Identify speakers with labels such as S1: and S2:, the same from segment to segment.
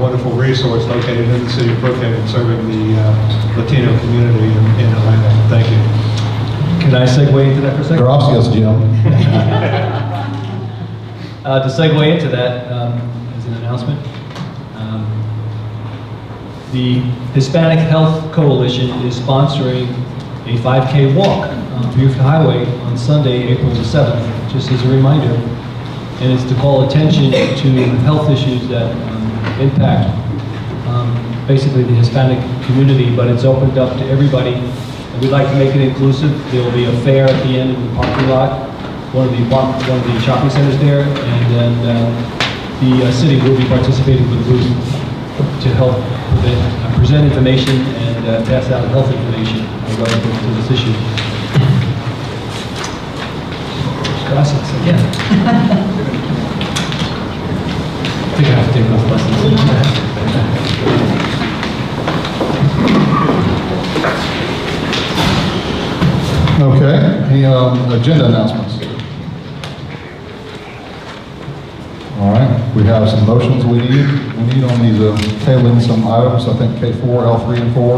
S1: resource located in the city of Brookhaven serving the uh, Latino community in in Atlanta. Thank you.
S2: Can I segue into that for a second?
S3: They're off skills, Jim.
S2: Uh, to segue into that, um, as an announcement, um, the Hispanic Health Coalition is sponsoring a 5K walk on Buford Highway on Sunday, April the 7th, just as a reminder. And it's to call attention to health issues that um, impact um, basically the Hispanic community, but it's opened up to everybody. And We'd like to make it inclusive. There will be a fair at the end of the parking lot, one of the, one of the shopping centers there, and then uh, the uh, city will be participating with booth to help prevent- uh, present information and uh, pass out health information relative to this issue. Gossips again. I think I have to take those lessons.
S3: Okay, any um, agenda announcements? All right, we have some motions we need, we need on these, uh, tabling some items, I think K4, L3 and 4,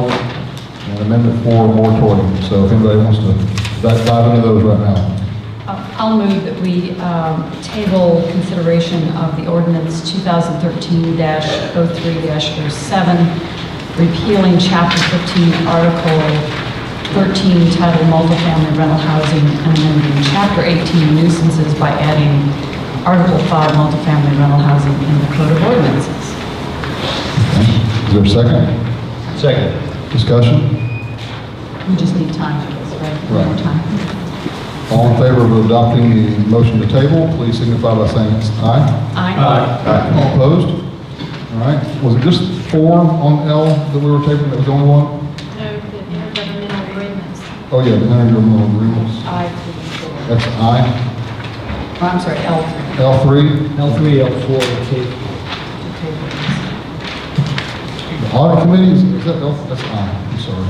S3: and Amendment 4 moratorium. So if anybody wants to dive dive into those right now.
S4: Uh, I'll move that we um, table consideration of the ordinance 2013-03-07, oh repealing Chapter 15, Article 13, titled Multifamily Rental Housing, and amending Chapter 18 nuisances by adding Article 5, Multifamily Rental Housing in the Code of Ordinances.
S3: Is there a second?
S2: Second.
S3: Discussion?
S4: We just need time for this, right? One more
S3: Right.
S4: time.
S3: All in favor of adopting the motion to table, please signify by saying aye.
S4: Aye.
S3: All opposed? All right, was it just four on L that we were tabling, that was the only one?
S5: No, the intergovernmental agreements.
S3: Oh, yeah, the intergovernmental agreements,
S4: Aye.
S3: that's I.
S4: Oh, I'm sorry, L.
S3: L three,
S2: L3, L4, and K.
S3: the audit committee, is is that L, that's I, I'm sorry.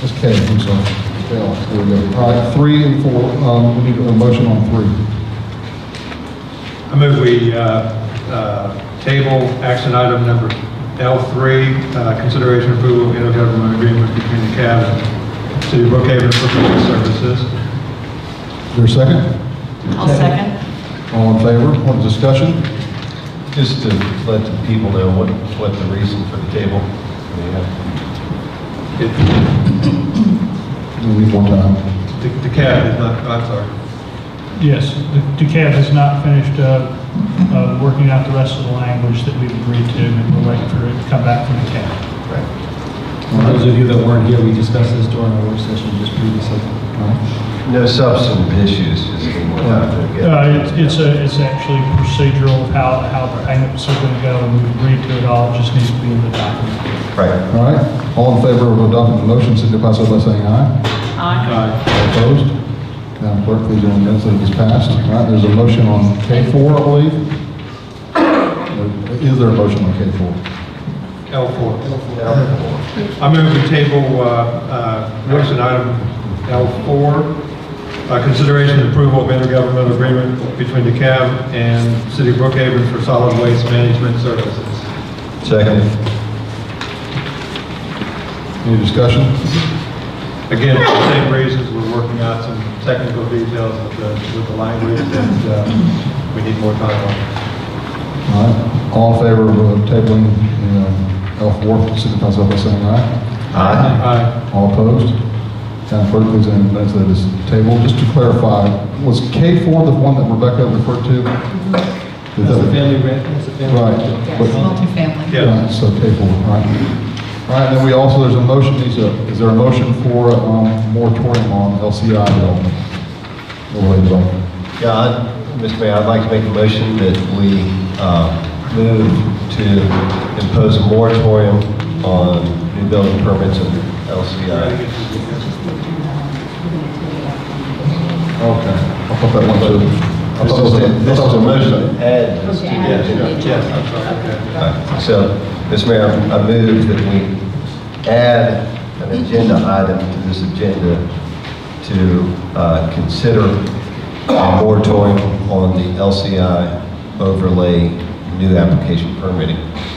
S3: That's K, I'm sorry. L, there we go. All right, three and four, um, we need a motion on three.
S1: I move we uh, uh, table action item number L3, uh, consideration approval of intergovernmental agreement between the CAB and City of Brookhaven for Public Services.
S3: Is there a second?
S4: I'll second.
S3: All in favor, on discussion?
S6: Just to let the people know what, what the reason for the table. Yeah.
S1: It-
S3: We need more time.
S1: The the CAB is not, I'm sorry.
S7: Yes, the- DeKalb has not finished uh, uh, working out the rest of the language that we've agreed to, and we're waiting for it to come back from DeKalb.
S2: For those of you that weren't here, we discussed this during our work session just previously.
S6: No substantive issues, just getting what happened.
S7: Uh, it's- It's a- it's actually procedural of how how the hang-ups are going to go, and we've agreed to it all, it just needs to be in the document.
S6: Right.
S3: All right, all in favor of adopting the motion, signify so by saying aye.
S4: Aye.
S3: All Opposed? Madam Clerk, please don't miss it is passed. All right, there's a motion on K4, I believe. Is there a motion on K4?
S1: L4. I move we table uh, uh, action item L4, uh, consideration and approval of intergovernmental agreement between the CAB and City of Brookhaven for solid waste management services.
S6: Second.
S3: Any discussion?
S1: Again, for the same reasons, we're working out some technical details with the, with the language and uh, we need more time on.
S3: All right, all in favor of uh, tabling um, L4, signify so by saying aye.
S6: Aye.
S1: Aye.
S3: All opposed? Madam Clerk, please don't miss it is tabled. Just to clarify, was K4 the one that Rebecca referred to? Is
S2: Mm-hmm. That's
S3: that-
S2: the family grant, that's the family.
S3: Right.
S4: Yes, multifamily.
S1: Yeah.
S3: Right, So K4, all right. All right, then we also, there's a motion, is there- is there a motion for um, moratorium on LCI development? Overlay development.
S6: Yeah, I'd- Mr. Mayor, I'd like to make a motion that we uh, move to impose a moratorium on new building permits and LCI.
S3: Okay. I thought that one too. I
S6: This
S3: thought it was
S6: is
S3: a-
S6: a-
S3: I
S6: this
S3: thought
S6: is
S3: it
S6: a
S3: was
S6: motion to add this to the
S1: Yes,
S6: agenda.
S1: yes, yes, I'm sorry, okay.
S6: So, Mr. Mayor, I move that we add an agenda item to this agenda to uh, consider a moratorium on the LCI overlay new application permitting.